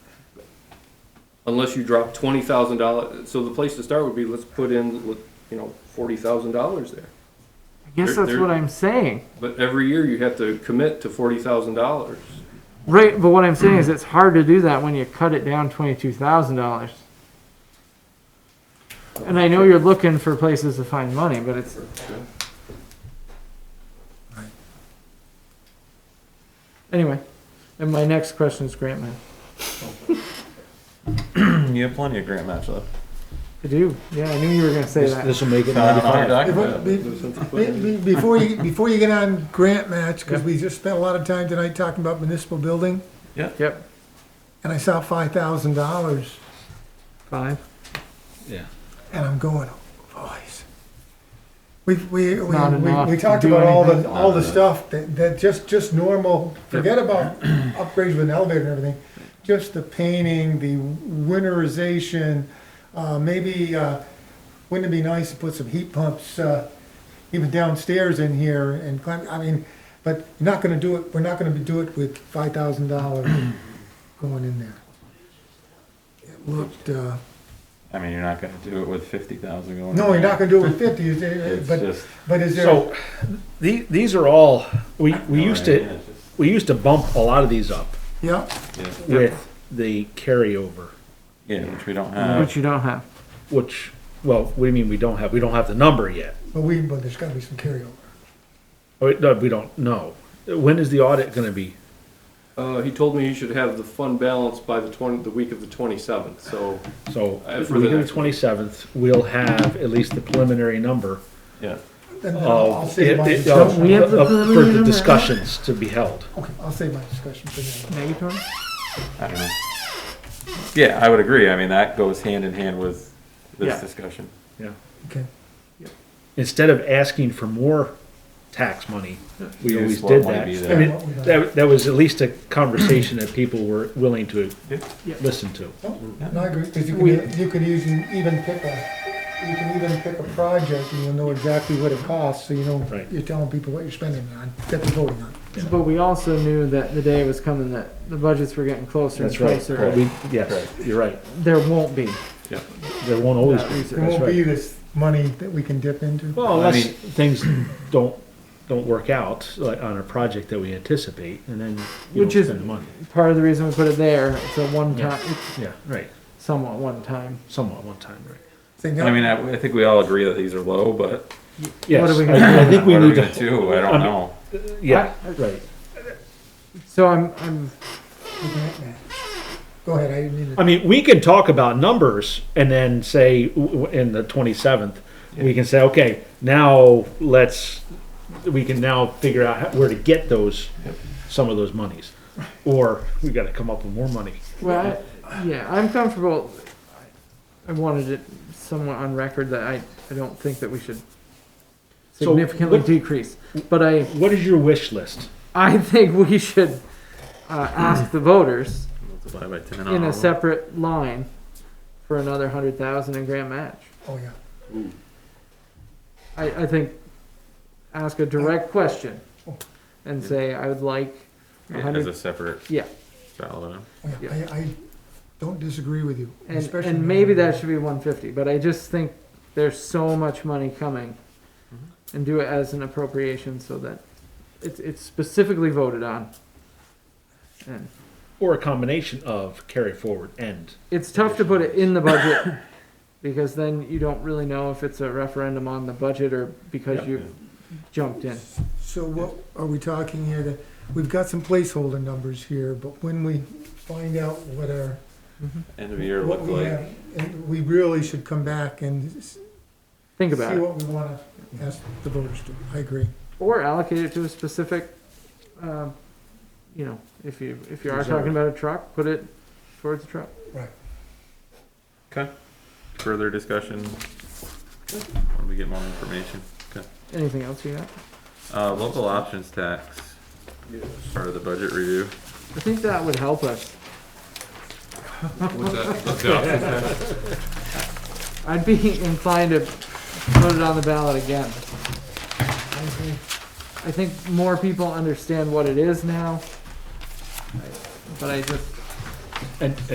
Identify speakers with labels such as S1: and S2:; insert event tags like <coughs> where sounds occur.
S1: unless you drop twenty thousand dollars. So the place to start would be, let's put in, you know, forty thousand dollars there.
S2: I guess
S1: There-
S2: that's
S1: there-
S2: what I'm saying.
S1: But every year you have to commit to forty thousand dollars.
S2: Right, but what I'm saying is it's hard to do that when you cut it down twenty-two thousand dollars. And I know you're looking for places to find money, but it's, anyway. And my next question is grant money.
S3: You have plenty of grant match left.
S2: I do, yeah, I knew you were gonna say that.
S4: This'll make it
S3: Uh, <laughs>
S4: ninety-five.
S3: document.
S5: Be- be- Before you, before you get on grant match, because
S2: Yeah.
S5: we just spent a lot of time tonight talking about municipal building,
S2: Yep,
S5: and I saw five thousand dollars,
S2: five.
S4: Yeah.
S5: and I'm going, "Oh, boys. We, we, we,
S2: Not
S5: we
S2: enough
S5: we
S2: to
S5: talked
S2: do
S5: about all the,
S2: anything.
S5: all the stuff that, that just, just normal, forget about upgrades with an elevator and everything. Just the painting, the winterization, uh, maybe, uh, wouldn't it be nice to put some heat pumps, uh, even downstairs in here and climb, I mean, but you're not gonna do it, we're not gonna do it with five thousand dollars going in there. It looked, uh,
S3: I mean, you're not gonna do it with fifty thousand going.
S5: no,
S3: in.
S5: you're not gonna do it with fifty, is it-
S3: It's
S5: but,
S3: just.
S5: but is there?
S4: So, the, these are all, we, we used
S3: Yeah,
S4: to,
S3: it's just-
S4: we used to bump a lot of these up
S5: Yeah,
S4: with the carryover,
S3: Yeah, which we don't
S2: Which
S3: have.
S2: you don't have.
S4: which, well, what do you mean we don't have? We don't have the number yet.
S5: but we, but there's gotta be some carryover.
S4: Oh, it- no, we don't know. When is the audit gonna be?
S1: Uh, he told me he should have the fund balance by the twenty, the week of the twenty-seventh, so.
S4: So,
S1: Uh, for the
S4: week of the
S1: next one.
S4: twenty-seventh, we'll have at least the preliminary number
S3: Yeah.
S5: Then I'll I'll
S4: of, Oh, it-
S5: save my
S4: it- oh.
S5: discussion.
S4: of,
S2: We have the
S4: of- for
S2: preliminary
S4: the
S2: number.
S4: discussions to be held.
S5: Okay, I'll save my discussion for then.
S2: Negatory?
S3: I don't know. Yeah, I would agree. I mean, that goes hand in hand with
S2: Yeah.
S3: this discussion.
S4: Yeah.
S5: Okay,
S4: Instead of asking for more tax money, we
S3: Use
S4: always
S3: what
S4: did
S3: might
S4: that.
S3: be
S4: I
S3: there.
S4: mean, that, that was at least a conversation that people were willing to
S3: Yeah.
S2: Yeah.
S4: listen to.
S5: no, I agree, because you
S2: We-
S5: can, you could even, even pick a, you can even pick a project and you'll know exactly what it costs, so you know,
S4: Right.
S5: you're telling people what you're spending it on, that they're voting on.
S2: But we also knew that the day was coming that the budgets were getting closer and
S4: That's right.
S2: closer.
S4: We, yes, you're right.
S2: There won't be.
S4: There won't always
S2: that
S4: be.
S2: research.
S5: There
S4: That's
S5: won't
S4: right.
S5: be this money that we can dip into.
S4: Well,
S3: I
S4: unless
S3: mean-
S4: things don't, don't work out, like on a project that we anticipate, and then you
S2: Which
S4: don't
S2: is-
S4: spend the money.
S2: Part of the reason we put it there, it's a one
S4: Yeah.
S2: time, it's
S4: Yeah, right,
S2: somewhat one time.
S4: somewhat one time, right.
S5: See, now-
S3: I mean, I, I think we all agree that these are low, but
S4: Yes,
S2: are we gonna do
S4: I I think we
S3: what are we
S4: need
S3: gonna
S4: to,
S3: do? I
S4: I
S3: don't
S4: mean-
S3: know.
S4: yeah, right.
S2: So I'm, I'm,
S5: we can't, man. Go ahead, I didn't mean
S4: I
S5: to.
S4: mean, we can talk about numbers and then say w- w- in the 27th, we can say, okay, now let's, we can now figure out how- where to get those, some of those monies. Or we got to come up with more money.
S2: well, I- yeah, I'm comfortable. I wanted it somewhat on record that I, I don't think that we should
S4: So
S2: significantly
S4: what-
S2: decrease. But I,
S4: What is your wish list?
S2: I think we should uh, ask the voters
S3: Multiply by ten
S2: in a separate line for another hundred thousand in grant match.
S5: Oh, yeah.
S2: I, I think, ask a direct question and say, I would like a
S3: As a
S2: hundred,
S3: separate
S2: yeah.
S3: dollar amount.
S5: Oh, yeah. I, I don't disagree with you.
S2: And,
S5: especially
S2: and maybe that should be one fifty, but I just think there's so much money coming.
S5: Mm-hmm.
S2: And do it as an appropriation so that it's, it's specifically voted on. And
S4: Or a combination of carry forward and,
S2: it's tough to put it in the
S5: <coughs>
S2: budget, because then you don't really know if it's a referendum on the budget or because you jumped in.
S5: So what are we talking here? That We've got some placeholder numbers here, but when we find out what our
S3: End of year
S5: what
S3: look
S5: we
S3: like.
S5: have, and we really should come back and s-
S2: Think
S5: see
S2: about it,
S5: what we wanna ask the voters to. I agree.
S2: or allocate it to a specific, um, you know, if you, if you are
S3: Reserve.
S2: talking about a truck, put it towards the truck.
S3: Okay. Further discussion? When we get more information.
S2: Anything else you got?
S3: Uh, local options tax, part of the budget review.
S2: I think that would help us. I'd be inclined to put it on the ballot again.
S5: I agree.
S2: I think more people understand what it is now. But I just,
S4: and